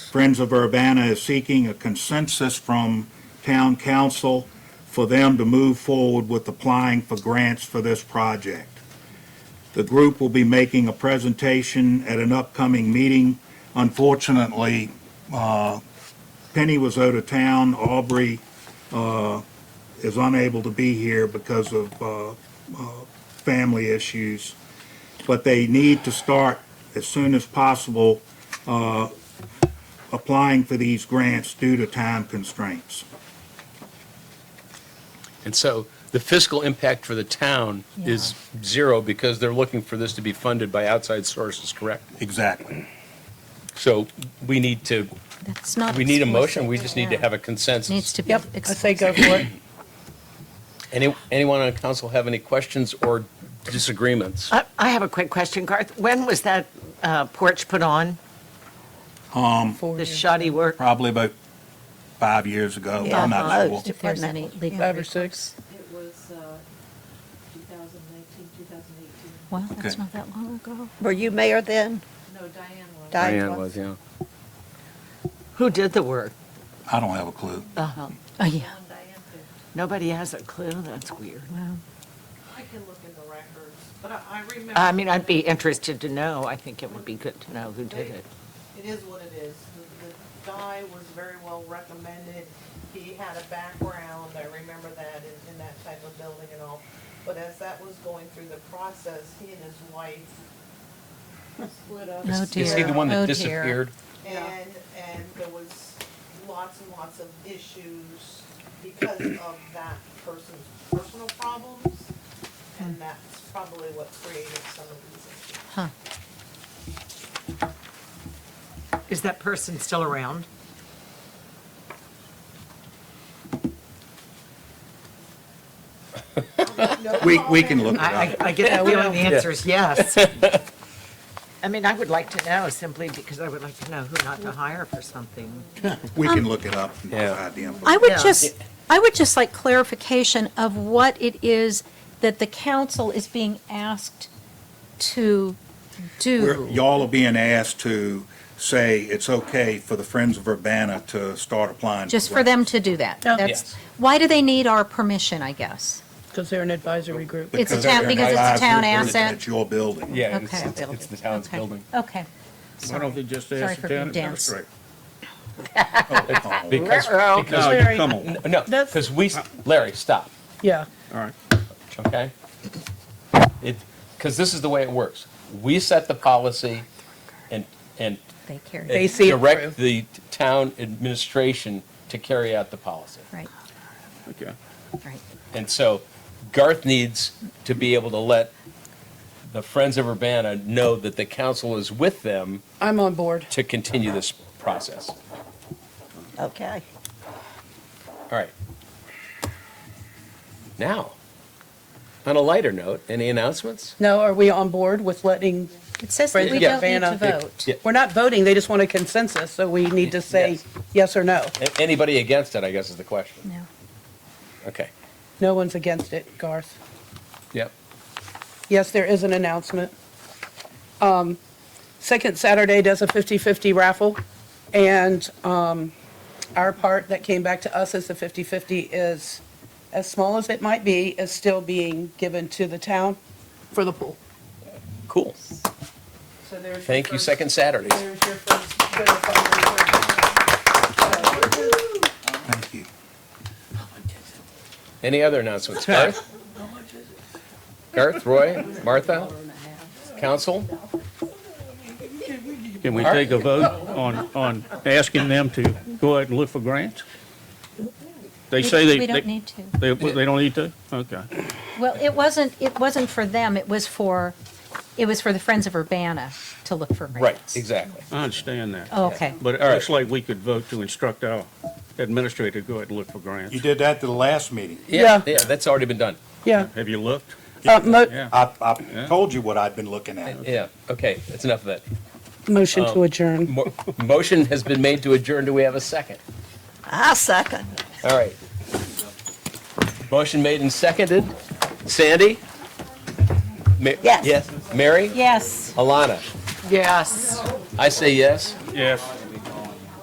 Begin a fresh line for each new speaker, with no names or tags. Friends of Urbana is seeking a consensus from town council for them to move forward with applying for grants for this project. The group will be making a presentation at an upcoming meeting. Unfortunately, uh, Penny was out of town. Aubrey uh, is unable to be here because of uh, uh, family issues. But they need to start as soon as possible uh, applying for these grants due to time constraints.
And so the fiscal impact for the town is zero because they're looking for this to be funded by outside sources, correct?
Exactly.
So we need to,
That's not.
we need a motion, we just need to have a consensus.
Needs to be.
Yep, I say go for it.
Any, anyone on council have any questions or disagreements?
I I have a quick question, Garth. When was that uh, porch put on? The shoddy work?
Um, Probably about five years ago.
Yeah,
I'm not sure.
most.
If there's any legal.
Five or
recourse.
six.
It was uh, 2019, 2018.
Well, that's
Okay.
not that long ago.
Were you mayor then?
No, Diane was.
Diane
Diane was,
was.
yeah.
Who did the work?
I don't have a clue.
Uh-huh.
Oh, yeah.
Diane did.
Nobody has a clue, that's weird.
Wow.
I can look in the records, but I- I remember.
I mean, I'd be interested to know, I think it would be good to know who did it.
It is what it is. The- The guy was very well recommended. He had a background, I remember that, in, in that type of building and all. But as that was going through the process, he and his wife split up.
No,
Is is he the
dear.
one
Oh,
that
dear.
disappeared?
And, and there was lots and lots of issues because of that person's personal problems. And that's probably what created some of these issues.
Huh.
Is that person still around?
No
We, we can
comment.
look it
I, I-
up.
I get the feeling the answer is yes. I mean, I would like to know simply because I would like to know who not to hire for something.
We can look it up and
Yeah.
provide the info.
I would
Yeah.
just, I would just like clarification of what it is that the council is being asked to
We're-
do.
Y'all are being asked to say it's okay for the Friends of Urbana to start applying.
Just for them
grants.
to do that.
Yeah.
That's,
Yes.
why do they need our permission, I guess?
Because they're an advisory group.
It's a
Because
town-
they're
because it's a
advised
town
that
asset.
It's your building.
Yeah,
Okay.
it's, it's the town's
Okay.
building.
Okay.
Why don't they just
Sorry
ask
for
the
being
town
dense.
administrator?
Oh,
Because,
Uh-oh.
because-
No,
Larry.
you come on.
n- no,
That's-
because we, Larry, stop.
Yeah.
All right.
okay? It, because this is the way it works. We set the policy and, and
They carry.
They
it.
see it
direct
through.
the town administration to carry out the policy.
Right,
Okay.
right.
And so Garth needs to be able to let the Friends of Urbana know that the council is with them
I'm on board.
to continue this process.
Okay.
All right. Now, on a lighter note, any announcements?
Now, are we on board with letting,
It says that we
Yeah.
don't need to
Vanna.
vote.
Yeah.
we're not voting, they just want a consensus, so we need to say
Yes.
yes or no.
A- Anybody against it, I guess is the question.
No.
Okay.
No one's against it, Garth.
Yep.
Yes, there is an announcement. Um, Second Saturday does a 50/50 raffle, and um, our part that came back to us as the 50/50 is, as small as it might be, is still being given to the town for the pool.
Cool.
So there's.
Thank you, Second Saturdays.
There's your first bit of fundraiser.
Thank you.
Any other announcements? Garth? Garth, Roy, Martha, council?
Can we take a vote on, on asking them to go out and look for grants? They
We-
say they,
We don't
they,
need to.
they they don't need to? Okay.
Well, it wasn't, it wasn't for them, it was for, it was for the Friends of Urbana to look for
Right,
grants.
exactly.
I understand that.
Oh, Okay.
But it
All right.
looks like we could vote to instruct our administrator to go out and look for grants.
You did that to the last meeting.
Yeah.
Yeah, that's already been done.
Yeah.
Have you looked?
Uh, mo-
Yeah.
I, I told you what I'd been looking at.
Yeah, okay, that's enough of that. Um,
Motion to adjourn.
Mo- Motion has been made to adjourn. Do we have a second?
I second.
All right. Motion made and seconded. Sandy? Ma-
Yes.
Yes. Mary?
Yes.
Alana?
Yes.
I say yes.
Yes.